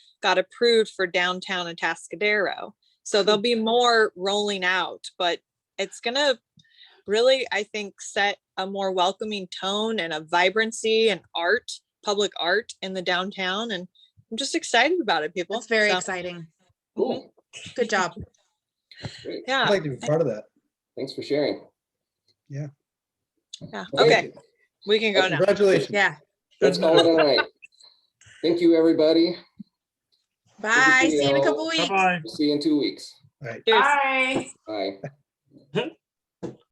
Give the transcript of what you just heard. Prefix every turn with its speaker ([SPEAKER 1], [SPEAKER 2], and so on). [SPEAKER 1] got approved for downtown and Atascadero. So there'll be more rolling out, but it's gonna really, I think, set a more welcoming tone and a vibrancy and art, public art in the downtown. And I'm just excited about it, people.
[SPEAKER 2] That's very
[SPEAKER 1] So,
[SPEAKER 2] exciting.
[SPEAKER 3] Cool.
[SPEAKER 2] Good job.
[SPEAKER 3] Great.
[SPEAKER 1] Yeah.
[SPEAKER 4] I'd like to be part of that.
[SPEAKER 3] Thanks for sharing.
[SPEAKER 1] Yeah, okay, we can go now.
[SPEAKER 4] Congratulations.
[SPEAKER 2] Yeah.
[SPEAKER 3] That's all tonight. Thank you, everybody.
[SPEAKER 2] Bye. See you in a couple weeks.
[SPEAKER 5] Bye-bye.
[SPEAKER 3] See you in two weeks.
[SPEAKER 4] All right.
[SPEAKER 1] Cheers.
[SPEAKER 6] Bye.
[SPEAKER 3] Bye.